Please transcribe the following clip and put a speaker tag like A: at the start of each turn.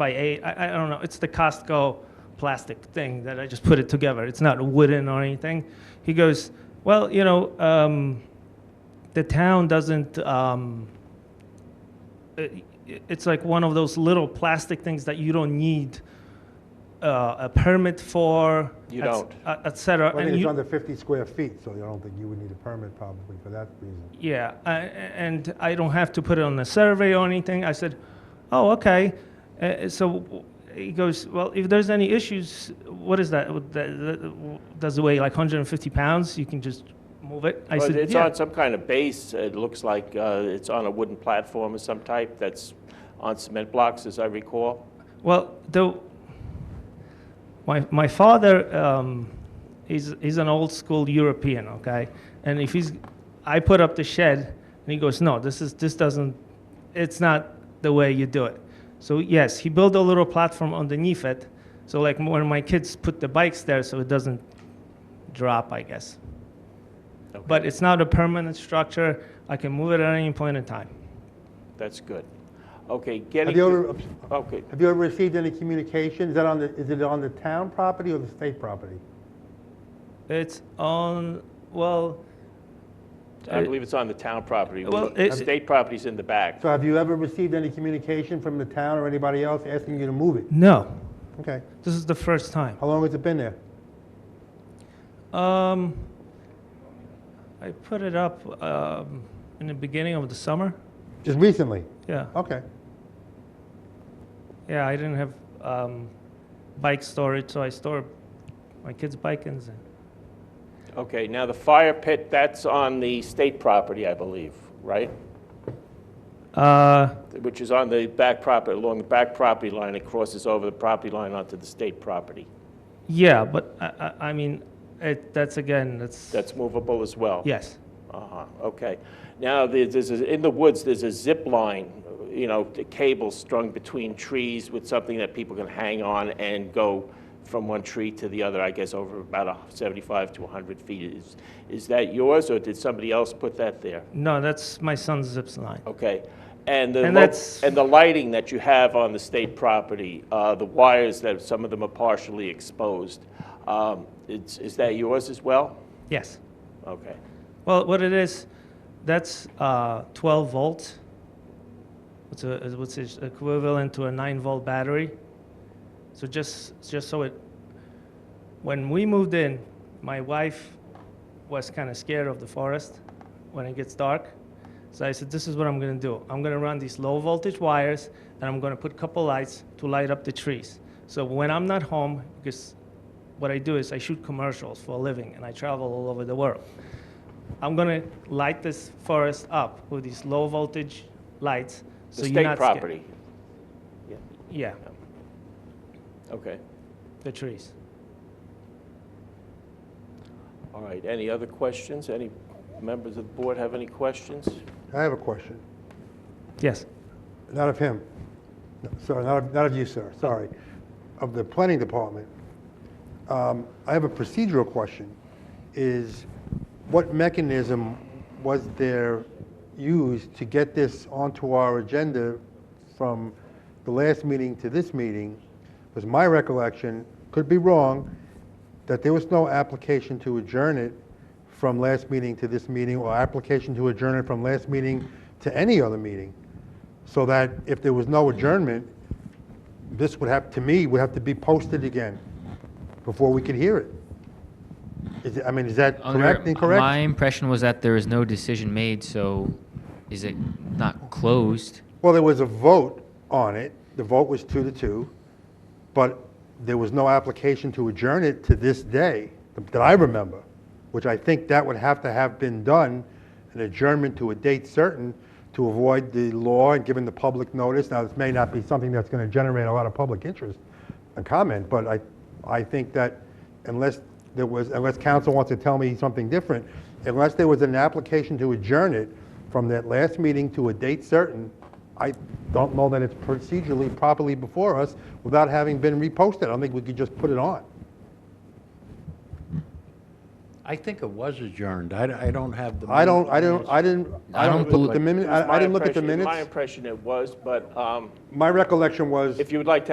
A: by eight. I, I don't know. It's the Costco plastic thing that I just put it together. It's not wooden or anything. He goes, well, you know, um, the town doesn't. Um, it, it's like one of those little plastic things that you don't need uh, a permit for.
B: You
A: et-
B: don't.
A: uh, Et cetera.
C: Well, I
A: And
C: think it's
A: you-
C: under 50 square feet, so I don't think you would need a permit probably for that reason.
A: Yeah, I, and I don't have to put it on the survey or anything. I said, oh, okay. Uh, so he goes, well, if there's any issues, what is that? Would that- that- Does it weigh like 150 pounds? You can just move it? I
B: But
A: said,
B: it's
A: yeah.
B: on some kind of base, it looks like uh, it's on a wooden platform of some type that's on cement blocks, as I recall.
A: Well, the, my, my father um, is, is an old school European, okay? And if he's, I put up the shed, and he goes, no, this is, this doesn't, it's not the way you do it. So yes, he built a little platform underneath it, so like when my kids put the bikes there, so it doesn't drop, I guess.
B: Okay.
A: But it's not a permanent structure, I can move it at any point in time.
B: That's good. Okay, getting,
C: Have you ever,
B: to- okay,
C: have you ever received any communication? Is that on the, is it on the town property or the state property?
A: It's on, well,
B: I believe it's on the town property.
A: Well,
B: The
A: it's-
B: State property's in the back.
C: So have you ever received any communication from the town or anybody else asking you to move it?
A: no,
C: Okay.
A: this is the first time.
C: How long has it been there?
A: Um, I put it up um, in the beginning of the summer.
C: Just recently?
A: Yeah,
C: Okay.
A: yeah. I didn't have um, bike storage, so I store my kids' bike in there.
B: Okay, now the fire pit, that's on the state property, I believe, right?
A: Uh,
B: Which is on the back property, along the back property line, it crosses over the property line onto the state property.
A: yeah, but I, I, I mean, it, that's again, that's,
B: That's movable as well?
A: yes,
B: Uh-huh, okay. Now, there's, there's a- in the woods, there's a zip line, you know, the cable strung between trees with something that people can hang on and go from one tree to the other, I guess, over about a 75 to 100 feet. Is, is that yours, or did somebody else put that there?
A: no, that's my son's zips line.
B: Okay. And the,
A: And
B: lo-
A: that's-
B: and the lighting that you have on the state property, uh, the wires that, some of them are partially exposed, um, it's, is that yours as well?
A: Yes.
B: Okay.
A: Well, what it is, that's uh, 12 volts. What's a, is- what's is equivalent to a 9 volt battery. So just just so it, when we moved in, my wife was kind of scared of the forest when it gets dark. So I said, this is what I'm going to do. I'm going to run these low voltage wires, and I'm going to put a couple lights to light up the trees. So when I'm not home, because what I do is I shoot commercials for a living, and I travel all over the world. I'm gonna light this forest up with these low voltage lights.
B: The
A: you're
B: state
A: not scared.
B: property. Yeah.
A: Yeah,
B: Okay,
A: the trees.
B: all right. Any other questions? Any members of the board have any questions?
C: I have a question.
A: Yes.
C: Not of him. No, Sorry, not of, not of you, sir, sorry. Of the planning department. Um, I have a procedural question, is what mechanism was there used to get this onto our agenda from the last meeting to this meeting? Was my recollection, could be wrong, that there was no application to adjourn it from last meeting to this meeting, or application to adjourn it from last meeting to any other meeting so that if there was no adjournment, this would have, to me, would have to be posted again before we could hear it. Is, it- I mean, is that
D: Under-
C: correct, incorrect?
D: My impression was that there was no decision made, so is it not closed?
C: Well, there was a vote on it, the vote was two to two, but there was no application to adjourn it to this day, that I remember, which I think that would have to have been done, an adjournment to a date certain, to avoid the law and giving the public notice. Now, this may not be something that's going to generate a lot of public interest and comment, but I, I think that unless there was, unless council wants to tell me something different, unless there was an application to adjourn it from that last meeting to a date certain, I don't know that it's procedurally properly before us without having been reposted. I don't think we could just put it on.
E: I think it was adjourned. I, I don't have the.
C: I don't, I don't, I didn't, I
D: I don't
C: don't look at the
D: believe-
C: minute,
B: It was
C: I I
B: my
C: didn't look at the
B: impression- it was My
C: minutes.
B: impression it was, but um,
C: My recollection was.
B: if you would like to